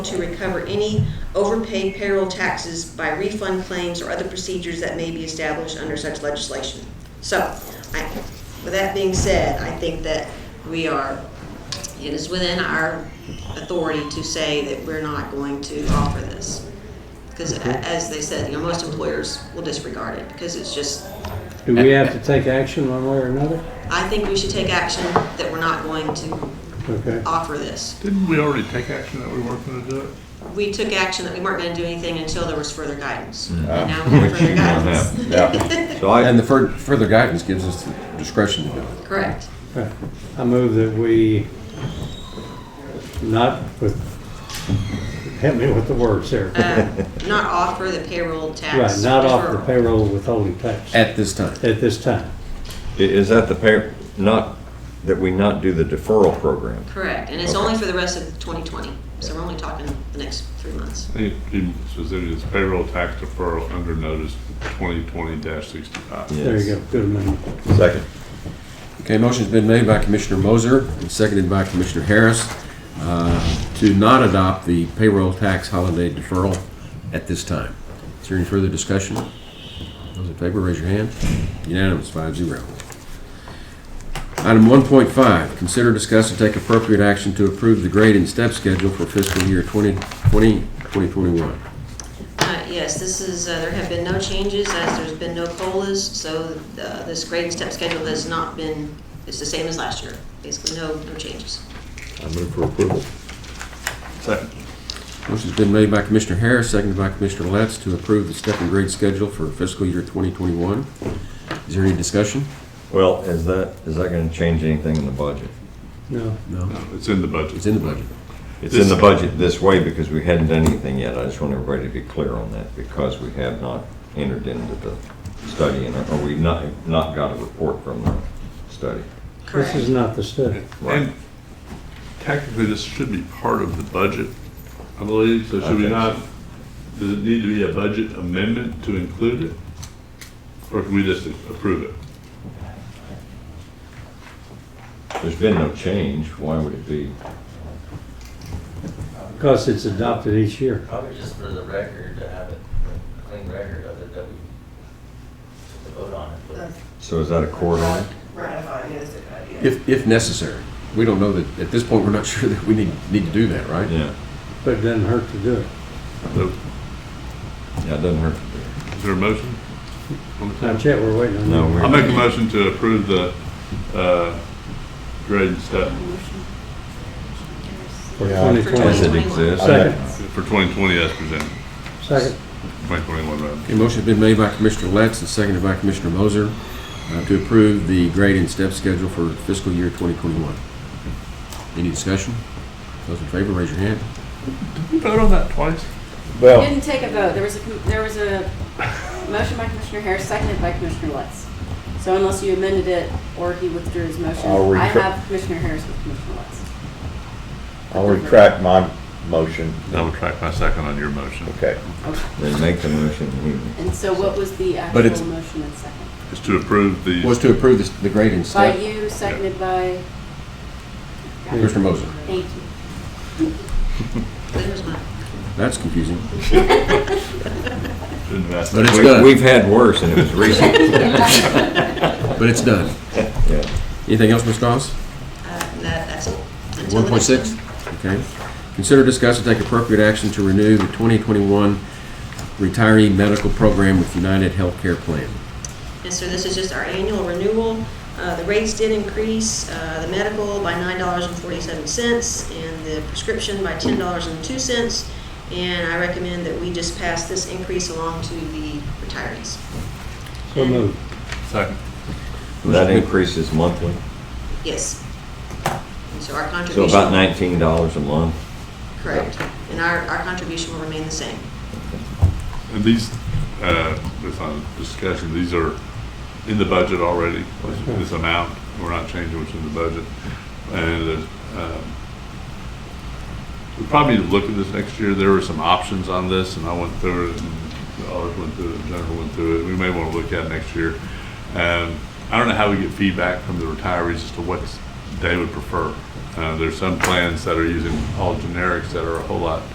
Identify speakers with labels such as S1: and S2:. S1: to recover any overpaid payroll taxes by refund claims or other procedures that may be established under such legislation. So, I, with that being said, I think that we are, it is within our authority to say that we're not going to offer this. Because as they said, you know, most employers will disregard it because it's just,
S2: Do we have to take action one way or another?
S1: I think we should take action that we're not going to
S2: Okay.
S1: offer this.
S3: Didn't we already take action that we weren't gonna do it?
S1: We took action that we weren't gonna do anything until there was further guidance. And now
S4: Ah,
S1: we have
S4: we're
S1: further
S4: cheating on
S1: guidance.
S4: Yeah. So I,
S5: And the fur- further guidance gives us the discretion to do it.
S1: Correct.
S2: Okay. I move that we, not with, help me with the words here.
S1: Uh, Not offer the payroll tax.
S2: Right, not off the
S1: deferral.
S2: payroll withholding tax at
S5: At this time,
S2: this time.
S4: i- is that the par, not, that we not do the deferral program?
S1: Correct, and it's only for the rest of 2020, so we're only talking the next three months.
S3: It, it says it is payroll tax deferral under notice twenty twenty sixty-five.
S2: There you go, good amendment.
S4: go. Second.
S5: Okay, motion's been made by Commissioner Moser and seconded by Commissioner Harris uh, to not adopt the payroll tax holiday deferral at this time. Is there any further discussion? Those in favor, raise your hand. Unanimous, five zero. Item 1.5, consider, discuss, and take appropriate action to approve the grade and step schedule for fiscal year 2020, 2021.
S1: Uh, Yes, this is, uh, there have been no changes, as there's been no COLAs, so uh, this grade and step schedule has not been, it's the same as last year, basically no, no changes.
S4: I move for approval. Second.
S5: Motion's been made by Commissioner Harris, seconded by Commissioner Letts to approve the step and grade schedule for fiscal year 2021. Is there any discussion?
S4: Well, is that, is that gonna change anything in the budget?
S2: No,
S5: No.
S3: It's in the budget.
S5: It's in the budget.
S4: It's in the budget this way because we hadn't done anything yet. I just want everybody to be clear on that because we have not entered into the study and, or we've not, not got a report from the study.
S2: this
S1: Correct.
S2: is not the study.
S3: And technically, this should be part of the budget, I believe, so should we
S4: Okay.
S3: not, does it need to be a budget amendment to include it? Or can we just approve it?
S4: There's been no change. Why would it be?
S2: Because it's adopted each year.
S6: Probably just for the record, to have it, a clean record of it, that we took the vote on it. but-
S4: So is that a court order?
S7: Ratifying is a good idea.
S5: If, if necessary. We don't know that, at this point, we're not sure that we need, need to do that, right?
S4: Yeah,
S2: But it doesn't hurt to do it.
S3: So,
S4: yeah, it doesn't hurt. to do it.
S3: Is there a motion?
S2: Not yet, we're waiting on
S4: No,
S2: that.
S4: we're-
S3: I'll make a motion to approve the, uh, grade and step
S2: For
S8: Yeah.
S1: For
S2: 2020.
S4: Does it
S1: 2021.
S4: exist?
S2: Second.
S3: for twenty twenty as presented,
S2: Second,
S3: twenty twenty-one rather.
S5: Okay, motion's been made by Commissioner Letts and seconded by Commissioner Moser uh, to approve the grade and step schedule for fiscal year 2021. Any discussion? Those in favor, raise your hand.
S3: Did we vote on that twice?
S5: Oh.
S8: We
S4: Well,
S8: Didn't take a vote. There was a, com- there was a motion by Commissioner Harris, seconded by Commissioner Lutz. So unless you amended it or he withdrew his motion,
S9: I'll
S8: I
S9: retract-
S8: have Commissioner Harris with Commissioner Lutz.
S9: I'll retract my motion.
S3: I will track my second on your motion.
S9: Okay.
S4: then make the motion. We-
S8: And so what was the
S5: But it's-
S8: actual motion and second?
S3: It's to approve the,
S5: Was to approve this- the grade and
S8: By
S5: step.
S8: you, seconded by? Got it.
S5: Commissioner Moser.
S8: Thank you.
S1: There's mine.
S5: That's confusing.
S3: shouldn't have asked
S5: But it's
S3: that.
S5: done.
S4: We've had worse and it was recent.
S5: But it's done.
S4: Yeah.
S5: Anything else, Ms. Goss?
S1: Uh, That, that's it. Until the
S5: One
S1: next
S5: point six? Okay. Consider, discuss, and take appropriate action to renew the twenty twenty-one retiree medical program with United Healthcare Plan.
S1: And so this is just our annual renewal. Uh, The rates did increase, uh, the medical by $9.47 and the prescription by $10.02. And I recommend that we just pass this increase along to the retirees.
S2: so moved.
S3: Second.
S4: That increases monthly,
S1: Yes. And so our
S4: so
S1: contribution.
S4: about nineteen dollars a month.
S1: Correct. And our, our contribution will remain the same.
S3: And these, uh, this on discussion, these are in the budget already, this- this amount, we're not changing what's in the budget. And, there's, um, we probably need to look at this next year, there were some options on this, and I went through it, and the others went through it, and Jennifer went through it, we may want to look at it next year. Um, I don't know how we get feedback from the retirees as to what they would prefer. Uh, there's some plans that are using all generics that are a whole lot